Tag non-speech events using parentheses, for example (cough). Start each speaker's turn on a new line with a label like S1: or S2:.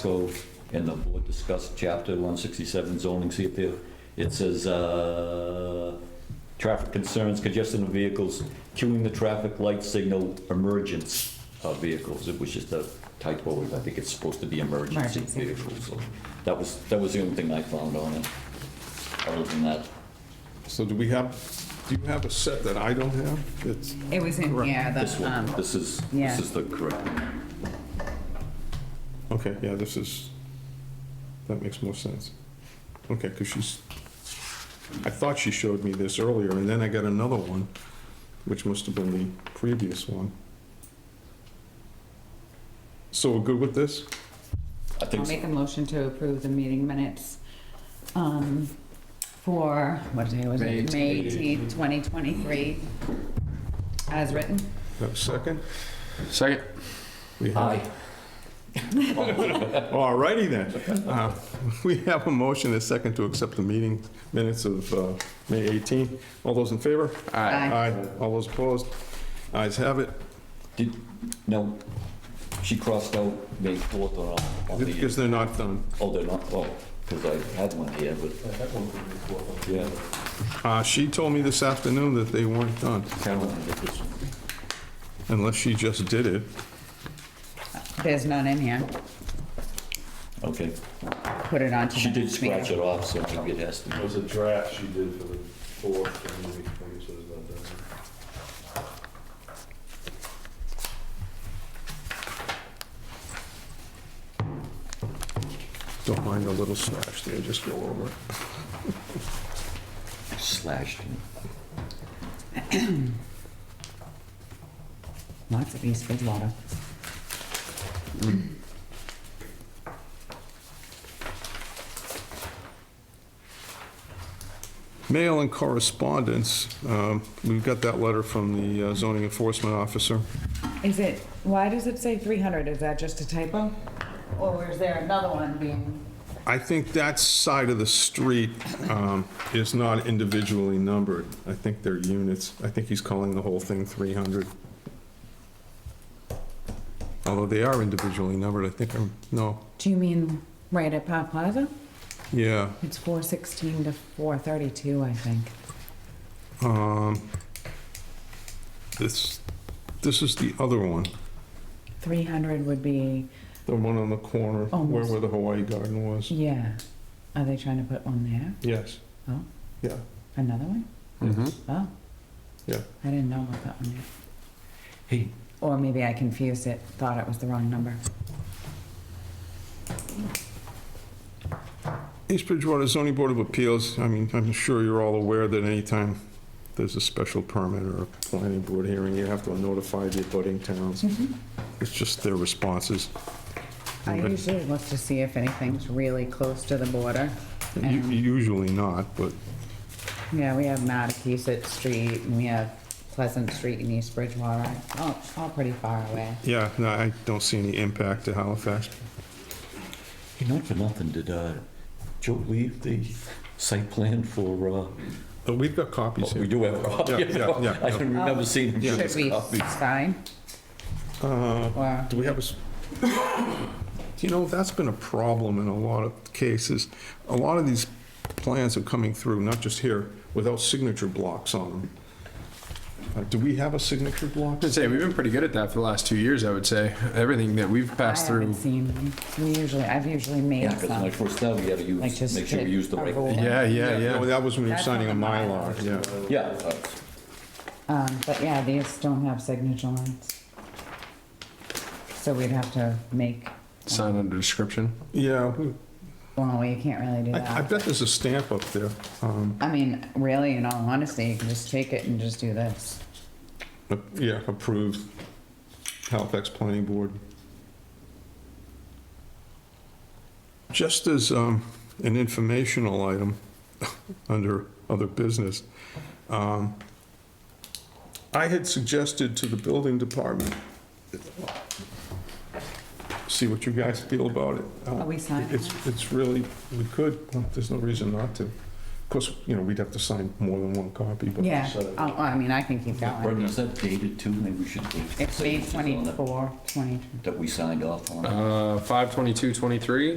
S1: Casco and the board discussed chapter 167 zoning, see if there, it says, uh, traffic concerns, congestion of vehicles, queuing the traffic light signal, emergence of vehicles. It was just a typo, I think it's supposed to be emergency
S2: Emergency.
S1: vehicles. So That was, that was the only thing I found on it. Other than that,
S3: So do we have, do you have a set that I don't have? It's,
S2: It was in,
S3: Correct.
S2: yeah,
S1: this
S2: the,
S1: one,
S2: um,
S1: this is,
S2: yeah.
S1: this is the correct one.
S3: okay, yeah, this is, that makes more sense. Okay, because she's, I thought she showed me this earlier, and then I got another one, which must have been the previous one. So we're good with this?
S1: I
S2: I'll
S1: think, so.
S2: make a motion to approve the meeting minutes, um, for, what day was it? May eighteenth, twenty twenty-three, as written.
S3: Have a second?
S4: Second.
S3: We have-
S1: aye.
S3: All righty then. Uh, (laughs) We have a motion, and a second to accept the meeting minutes of uh, May 18. All those in favor?
S2: Aye.
S3: All those opposed? Ayes have it.
S1: Did, no, she crossed out May 4th on, on the,
S3: Because they're not done.
S1: oh, they're not, oh, because I had one here, but. Yeah,
S3: Uh, She told me this afternoon that they weren't done,
S1: Caroline did this one.
S3: unless she just did it.
S2: There's none in here.
S1: Okay,
S2: Put it on to
S1: she
S2: the
S1: did
S2: next meeting.
S1: scratch it off, so maybe it has to
S5: It
S1: be.
S5: was a draft she did for the fourth, and we, I guess it was not done.
S3: Don't mind the little slash there, just go over it.
S1: Slashed.
S2: Lots of East Bridgewater.
S3: Mail and correspondence, um, we've got that letter from the uh, zoning enforcement officer.
S2: Is it, why does it say three hundred? Is that just a typo? Or is there another one being?
S3: I think that side of the street um, is not individually numbered. I think they're units. I think he's calling the whole thing 300. Although they are individually numbered, I think, I'm- no,
S2: Do you mean right at Pop Plaza?
S3: yeah.
S2: It's four sixteen to four thirty-two, I think.
S3: um, This, this is the other one,
S2: Three hundred would be,
S3: the one on the corner where where the Hawaii Garden was.
S2: yeah. Are they trying to put one there?
S3: Yes.
S2: Oh.
S3: Yeah.
S2: Another one?
S4: Mm-hmm.
S2: Oh.
S3: Yeah.
S2: I didn't know about that one yet.
S1: Hey.
S2: Or maybe I confused it, thought it was the wrong number.
S3: East Bridgewater zoning board of appeals, I mean, I'm sure you're all aware that anytime there's a special permit or a planning board hearing, you have to notify the abutting towns. It's just their responses.
S2: I
S3: But
S2: usually look to see if anything's really close to the border.
S3: u-
S2: And,
S3: Usually not, but
S2: yeah, we have Mattakesett Street, and we have Pleasant Street in East Bridgewater. Oh, it's all pretty far away.
S3: yeah, no, I don't see any impact to Halifax.
S1: You know, for nothing, did, uh, Joe leave the site plan for, uh,
S3: But we've got copies
S1: we
S3: here.
S1: do have,
S3: Yeah, yeah, yeah.
S1: I didn't remember seeing him give
S2: Should
S1: us
S2: we
S1: copies.
S2: sign?
S4: Uh,
S2: Or,
S3: Do we have a, s- you know, that's been a problem in a lot of cases. A lot of these plans are coming through, not just here, without signature blocks on them. Uh, Do we have a signature block?
S4: I'd say we've been pretty good at that for the last two years. I would say everything that we've
S2: I
S4: passed
S2: haven't
S4: through.
S2: seen them. We usually, I've usually
S1: Yeah,
S2: made
S1: because when I
S2: some.
S1: first started, we had to
S2: Like
S1: use,
S2: just
S1: make sure we
S2: did
S1: use the
S2: a
S1: right
S2: roll.
S1: thing.
S4: Yeah, yeah,
S3: Yeah, well,
S4: yeah.
S3: that was when you were
S2: That's
S3: signing a
S2: on the
S3: Mylar, yeah.
S1: Yeah, uh,
S2: Um, but yeah, these don't have signature lines. So we'd have to make,
S4: Sign under description.
S3: Yeah, we-
S2: well, you can't really do
S3: I I
S2: that.
S3: bet there's a stamp up there. Um,
S2: I mean, really, in all honesty, you can just take it and just do this.
S3: but, Yeah, approved Halifax Planning Board. Just as um, an informational item, (laughs) under other business, um, I had suggested to the building department, see what you guys feel about it.
S2: Are we signing
S3: It's, it's really, we could, there's no reason not to. course, you know, we'd have to sign more than one copy, but.
S2: Yeah, oh, I mean, I can keep
S1: Brendan,
S2: going.
S1: is that dated too? Maybe we should leave.
S2: It's May
S1: signatures on that-
S2: 24, 20.
S1: That we signed off on.
S4: Uh, 52223.